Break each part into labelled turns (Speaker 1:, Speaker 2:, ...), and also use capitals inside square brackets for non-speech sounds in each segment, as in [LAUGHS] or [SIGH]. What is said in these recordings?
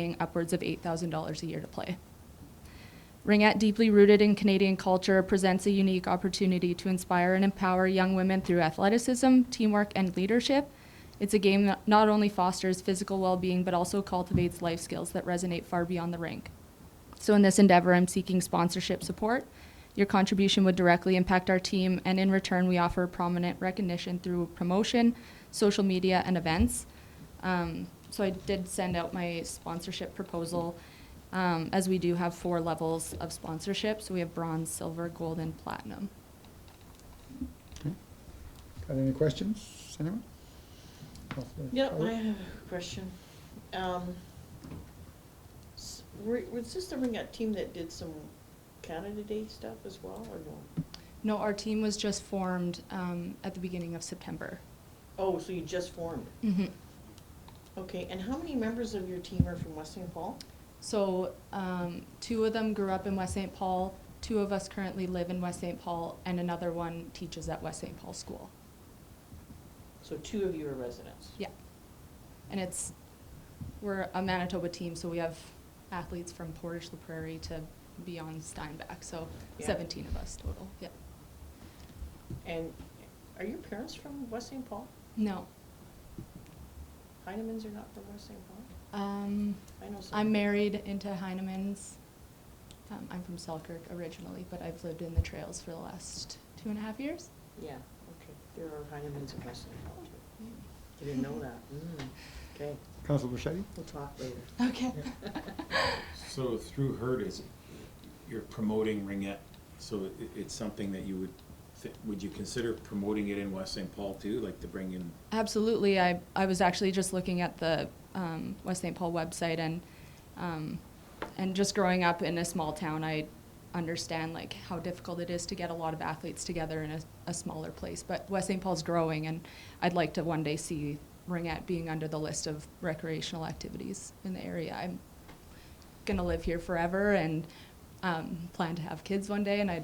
Speaker 1: paying upwards of $8,000 a year to play. Ringette, deeply rooted in Canadian culture, presents a unique opportunity to inspire and empower young women through athleticism, teamwork, and leadership. It's a game that not only fosters physical well being, but also cultivates life skills that resonate far beyond the rink. So, in this endeavor, I'm seeking sponsorship support. Your contribution would directly impact our team, and in return, we offer prominent recognition through promotion, social media, and events. Um, so, I did send out my sponsorship proposal um, as we do have four levels of sponsorship. So, we have bronze, silver, gold, and platinum.
Speaker 2: Got any questions, anyone? Councillor
Speaker 3: Yeah, I
Speaker 2: Howard?
Speaker 3: have a question. Um, s- were- Was this the Ringette team that did some Canada Day stuff as well, or no?
Speaker 1: No, our team was just formed um, at the beginning of September.
Speaker 3: Oh, so you just formed.
Speaker 1: Mhm.
Speaker 3: Okay, and how many members of your team are from West St. Paul?
Speaker 1: So, um, two of them grew up in West St. Paul, two of us currently live in West St. Paul, and another one teaches at West St. Paul School.
Speaker 3: So two of you are residents?
Speaker 1: Yeah. And it's, we're a Manitoba team, so we have athletes from Portage La Prairie to beyond Steinbach, so
Speaker 3: Yeah.
Speaker 1: 17 of us total. Yeah.
Speaker 3: And are your parents from West St. Paul?
Speaker 1: No.
Speaker 3: Heinemans are not from West St. Paul?
Speaker 1: Um,
Speaker 3: I know some.
Speaker 1: I'm married into Heinemann's. Um, I'm from Selkirk originally, but I've lived in the trails for the last two and a half years.
Speaker 3: Yeah, okay. There are Heinemans in West St.
Speaker 1: [LAUGHS]
Speaker 3: Paul, too. I Didn't know that. Mm, Okay,
Speaker 2: Councillor Bichetti?
Speaker 3: we'll talk later.
Speaker 1: Okay.
Speaker 4: So through her, is, you're promoting Ringette, so it, it's something that you would, thi- would you consider promoting it in West St. Paul too, like to bring in?
Speaker 1: Absolutely. I, I was actually just looking at the um, West St. Paul website and um, and just growing up in a small town, I understand like how difficult it is to get a lot of athletes together in a, a smaller place. But West St. Paul's growing, and I'd like to one day see Ringette being under the list of recreational activities in the area. I'm gonna live here forever and um, plan to have kids one day, and I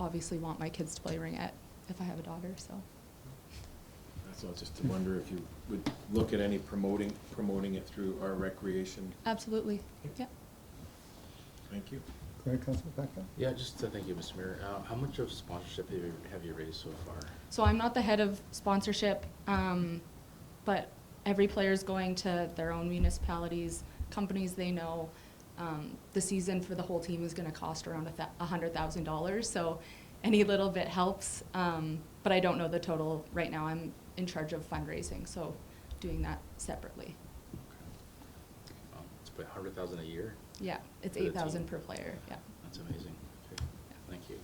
Speaker 1: obviously want my kids to play Ringette if I have a daughter. So.
Speaker 4: That's all, just to wonder if you would look at any promoting, promoting it through our recreation.
Speaker 1: Absolutely, yeah.
Speaker 4: Thank you.
Speaker 2: Go ahead, Councillor Blackwell.
Speaker 5: Yeah, just to thank you, Mr. Mayor. Um, How much of sponsorship have you, have you raised so far?
Speaker 1: So I'm not the head of sponsorship, um, but every player's going to their own municipalities, companies they know. Um, the season for the whole team is gonna cost around a thou- a hundred thousand dollars, so any little bit helps. Um, but I don't know the total right now. I'm in charge of fundraising, so doing that separately.
Speaker 5: Um, It's about a hundred thousand a year?
Speaker 1: Yeah, it's
Speaker 5: For the
Speaker 1: eight thousand
Speaker 5: team.
Speaker 1: per player, yeah.
Speaker 5: That's amazing. Okay, Thank you.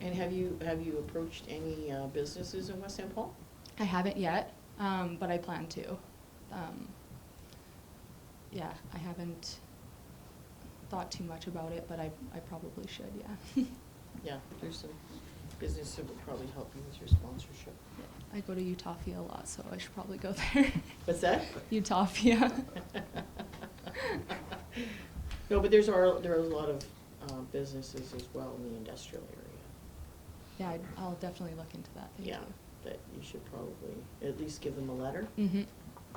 Speaker 3: And have you, have you approached any uh, businesses in West St. Paul?
Speaker 1: I haven't yet, um, but I plan to. Um, yeah, I haven't thought too much about it, but I, I probably should, yeah. [LAUGHS]
Speaker 3: Yeah, there's some business that would probably help you with your [LAUGHS] sponsorship.
Speaker 1: I go to Utopia a lot, so I should probably go [LAUGHS] there.
Speaker 3: What's that? [LAUGHS]
Speaker 1: Utopia.
Speaker 3: No, but there's, are- there are a lot of uh, businesses as well in the industrial area.
Speaker 1: yeah, I'd, I'll definitely look into that. Thank
Speaker 3: Yeah, that you Mm. should probably at least give them a letter
Speaker 1: you. hmm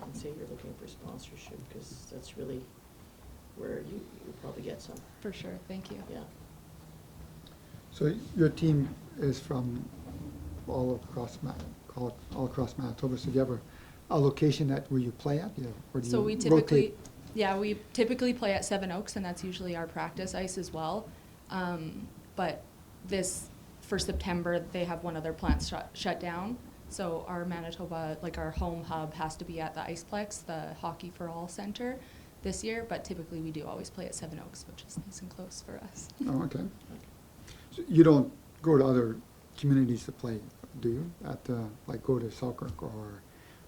Speaker 3: and say you're looking for sponsorship, because that's really where you, you'll probably get some,
Speaker 1: For sure. Thank you.
Speaker 3: yeah.
Speaker 2: So your team is from all across Ma, all, all across Manitoba, so do you have a, a location that, where you play at, you, or do you
Speaker 1: So we
Speaker 2: rotate?
Speaker 1: typically, yeah, we typically play at Seven Oaks, and that's usually our practice ice as well. Um, but this, for September, they have one of their plants shut, shut down. So our Manitoba, like our home hub, has to be at the Iceplex, the Hockey for All Center, this year. But typically, we do always play at Seven Oaks, which is nice and close for us.
Speaker 2: Oh, okay. So You don't go to other communities to play, do you? At, uh, like, go to Selkirk or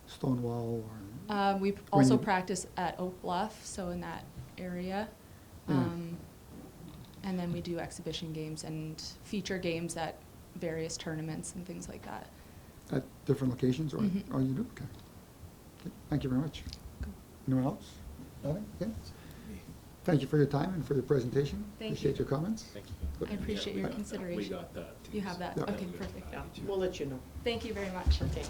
Speaker 2: Stonewall or?
Speaker 1: Uh, we p-
Speaker 2: When
Speaker 1: also
Speaker 2: you-
Speaker 1: practice at Oak Bluff, so in that area.
Speaker 2: Yeah.
Speaker 1: Um, and then we do exhibition games and feature games at various tournaments and things like that. Uh,
Speaker 2: At different locations, or,
Speaker 1: Mhm.
Speaker 2: or you do, okay. Okay, Thank you very much.
Speaker 1: Cool.
Speaker 2: Anyone else? Nothing? Okay. Thank you for your time and for your presentation.
Speaker 1: Thank
Speaker 2: Appreciate
Speaker 1: you.
Speaker 2: your comments.
Speaker 5: Thank
Speaker 1: I
Speaker 5: you.
Speaker 1: appreciate
Speaker 4: Yeah, we
Speaker 1: your
Speaker 4: got that. We
Speaker 1: consideration.
Speaker 4: got that. too,
Speaker 1: You have
Speaker 4: so
Speaker 1: that?
Speaker 2: Yeah.
Speaker 1: Okay,
Speaker 4: we got
Speaker 1: perfect.
Speaker 4: that.
Speaker 3: Yeah, we'll let you know.
Speaker 1: Thank you very much.
Speaker 3: Okay.